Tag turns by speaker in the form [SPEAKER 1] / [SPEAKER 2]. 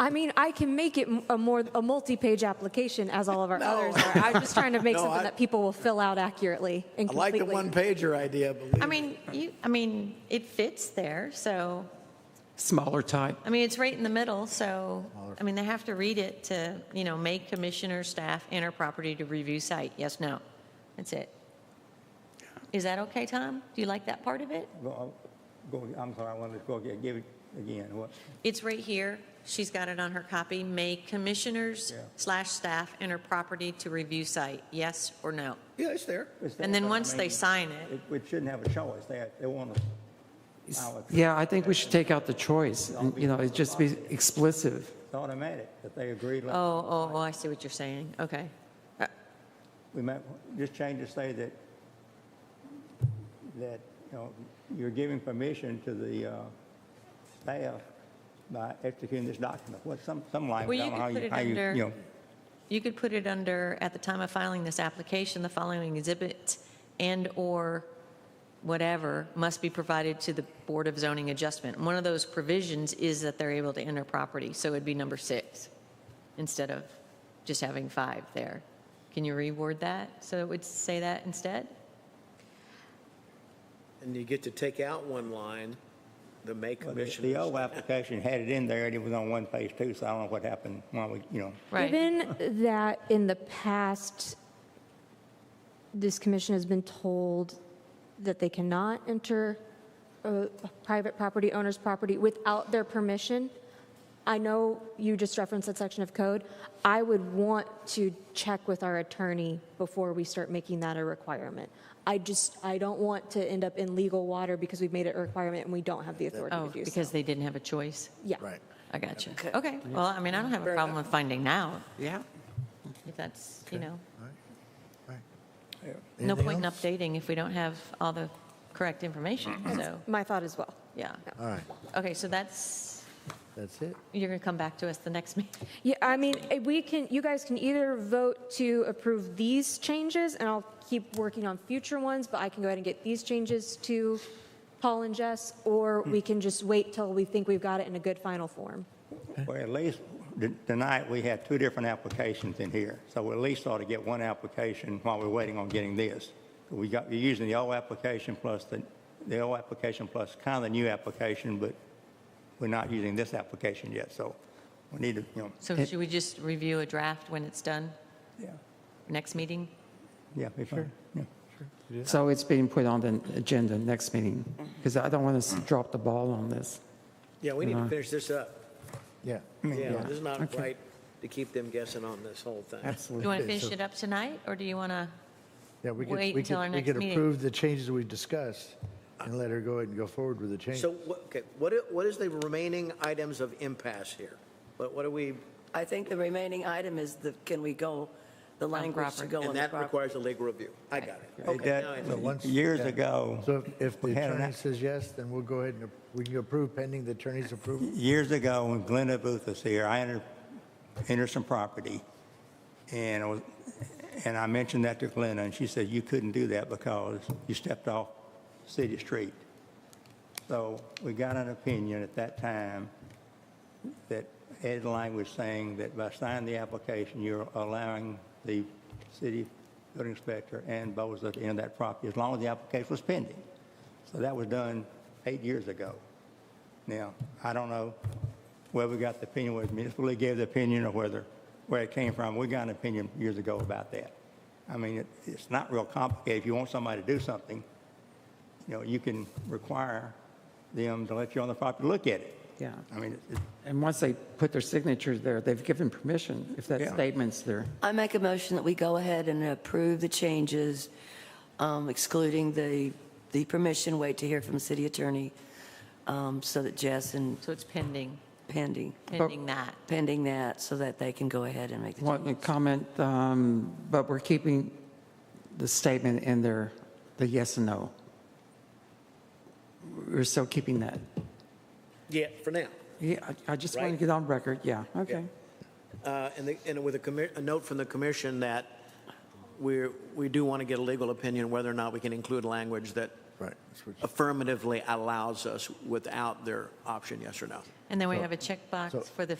[SPEAKER 1] I mean, I can make it m- a more a multi-page application as all of our others are. I'm just trying to make
[SPEAKER 2] No,
[SPEAKER 1] something
[SPEAKER 2] I-
[SPEAKER 1] that people will fill out accurately and
[SPEAKER 2] I like
[SPEAKER 1] completely.
[SPEAKER 2] the one pager idea, believe
[SPEAKER 3] I
[SPEAKER 2] me.
[SPEAKER 3] mean, you, I mean, it fits there, so,
[SPEAKER 4] Smaller type.
[SPEAKER 3] I mean, it's right in the middle, so, I mean, they have to read it to, you know, make commissioner, staff, enter property to review site, yes, no. That's it. Is that okay, Tom? Do you like that part of it?
[SPEAKER 5] Go, go, I'm sorry, I wanted to go, again. give it again, what?
[SPEAKER 3] It's right here. She's got it on her copy. Make commissioners
[SPEAKER 5] Yeah.
[SPEAKER 3] slash staff enter property to review site, yes or no?
[SPEAKER 2] Yeah, it's there.
[SPEAKER 5] it's
[SPEAKER 3] And
[SPEAKER 5] there,
[SPEAKER 3] then
[SPEAKER 5] but I
[SPEAKER 3] once they
[SPEAKER 5] mean,
[SPEAKER 3] sign it,
[SPEAKER 5] It, it shouldn't have a choice, they, they want to.
[SPEAKER 4] Yeah, I think we should take out the choice, and, you know, it just be explicit.
[SPEAKER 5] It's automatic, if they agree,
[SPEAKER 3] oh,
[SPEAKER 5] like,
[SPEAKER 3] oh, oh, I see what you're saying, okay.
[SPEAKER 5] we might, just change to say that, that, you know, you're giving permission to the, uh, staff by executing this document, what, some, some language,
[SPEAKER 3] Well,
[SPEAKER 5] I
[SPEAKER 3] you
[SPEAKER 5] don't know how
[SPEAKER 3] could put
[SPEAKER 5] you,
[SPEAKER 3] it
[SPEAKER 5] how you,
[SPEAKER 3] under-
[SPEAKER 5] you know.
[SPEAKER 3] You could put it under, at the time of filing this application, the following exhibits and/or whatever must be provided to the Board of Zoning Adjustment. One of those provisions is that they're able to enter property, so it'd be number six instead of just having five there. Can you reword that? So it would say that instead?
[SPEAKER 6] And you get to take out one line, the May
[SPEAKER 5] Well, the- The
[SPEAKER 6] commissioners.
[SPEAKER 5] old application had it in there, and it was on one page too, so I don't know what happened, why we, you know.
[SPEAKER 3] Right.
[SPEAKER 1] Given that in the past, this commission has been told that they cannot enter a private property owner's property without their permission, I know you just referenced that section of code. I would want to check with our attorney before we start making that a requirement. I just, I don't want to end up in legal water because we've made it a requirement and we don't have the authority
[SPEAKER 3] Oh,
[SPEAKER 1] to do so.
[SPEAKER 3] because they didn't have a choice?
[SPEAKER 1] Yeah.
[SPEAKER 2] Right.
[SPEAKER 3] I got you. Okay, well, I mean, I don't have a problem with finding out,
[SPEAKER 4] Yeah.
[SPEAKER 3] if that's, you know. No
[SPEAKER 2] Anything
[SPEAKER 3] point in
[SPEAKER 2] else?
[SPEAKER 3] updating if we don't have all the correct information, so,
[SPEAKER 1] My thought as well.
[SPEAKER 3] yeah.
[SPEAKER 2] All right,
[SPEAKER 3] Okay, so that's,
[SPEAKER 2] that's it.
[SPEAKER 3] you're going to come back to us the next meeting.
[SPEAKER 1] Yeah, I mean, eh, we can, you guys can either vote to approve these changes, and I'll keep working on future ones, but I can go ahead and get these changes to Paul and Jess, or we can just wait till we think we've got it in a good final form.
[SPEAKER 5] Well, at least t- tonight, we had two different applications in here, so we at least ought to get one application while we're waiting on getting this. We got, you're using the old application plus the, the old application plus kind of the new application, but we're not using this application yet, so we need to, you know,
[SPEAKER 3] So
[SPEAKER 4] It-
[SPEAKER 3] should we just review a draft when it's done,
[SPEAKER 5] yeah,
[SPEAKER 3] next meeting?
[SPEAKER 5] yeah, be fine, yeah.
[SPEAKER 4] So it's being put on the agenda next meeting, because I don't want to drop the ball on this.
[SPEAKER 6] Yeah, we need to finish this up.
[SPEAKER 2] Yeah.
[SPEAKER 6] Yeah, this is not
[SPEAKER 4] Okay.
[SPEAKER 6] right to keep them guessing on this whole thing.
[SPEAKER 3] Do you want to finish it up tonight, or do you want to,
[SPEAKER 2] Yeah, we could,
[SPEAKER 3] Wait
[SPEAKER 2] we
[SPEAKER 3] till our
[SPEAKER 2] could, we
[SPEAKER 3] next
[SPEAKER 2] could
[SPEAKER 3] meeting.
[SPEAKER 2] approve the changes we discussed and let her go ahead and go forward with the change.
[SPEAKER 6] So, what- okay, what, i- what is the remaining items of impasse here? What, what are we,
[SPEAKER 7] I think the remaining item is the, can we go, the language to
[SPEAKER 3] property.
[SPEAKER 7] go on
[SPEAKER 6] and
[SPEAKER 7] the
[SPEAKER 6] that
[SPEAKER 7] property.
[SPEAKER 6] requires a legal review. I got it.
[SPEAKER 5] It
[SPEAKER 6] Okay, now I
[SPEAKER 5] does-
[SPEAKER 6] understand.
[SPEAKER 2] once-
[SPEAKER 5] Years
[SPEAKER 2] yeah.
[SPEAKER 5] ago.
[SPEAKER 2] So if- if the
[SPEAKER 5] we had an
[SPEAKER 2] attorney
[SPEAKER 5] app-
[SPEAKER 2] says yes, then we'll go ahead and, ap- we can approve pending the attorney's approval.
[SPEAKER 5] years ago, when Glenda Booth was here, I entered, entered some property, and I was, and I mentioned that to Glenda, and she said, you couldn't do that because you stepped off city street. So we got an opinion at that time that Ed Lang was saying that by signing the application, you're allowing the city building inspector and Boza to enter that property, as long as the application was pending. So that was done eight years ago. Now, I don't know where we got the opinion, whether municipal league gave the opinion or whether, where it came from. We got an opinion years ago about that. I mean, it, it's not real complicated. If you want somebody to do something, you know, you can require them to let you on the property, to look at it.
[SPEAKER 4] Yeah.
[SPEAKER 5] I mean, it- it-
[SPEAKER 4] And once they put their signatures there, they've given permission, if that
[SPEAKER 5] Yeah.
[SPEAKER 4] statement's there.
[SPEAKER 7] I make a motion that we go ahead and approve the changes, um, excluding the, the permission, wait to hear from the city attorney, um, so that Jess and
[SPEAKER 3] so it's pending,
[SPEAKER 7] pending,
[SPEAKER 3] pending that?
[SPEAKER 7] pending that, so that they can go ahead and make the
[SPEAKER 4] Want to comment, um, but we're keeping the statement in there, the yes and no. We're still keeping that.
[SPEAKER 6] Yeah, for now.
[SPEAKER 4] Yeah, I I just want to
[SPEAKER 6] Right.
[SPEAKER 4] get on record, yeah, okay.
[SPEAKER 6] Uh, And, the- and with a commi, a note from the commission that we're, we do want to get a legal opinion whether or not we can include language that
[SPEAKER 2] Right. that's what-
[SPEAKER 6] affirmatively allows us without their option, yes or no.
[SPEAKER 3] And then we
[SPEAKER 2] So-
[SPEAKER 3] have a
[SPEAKER 2] so-
[SPEAKER 3] checkbox for the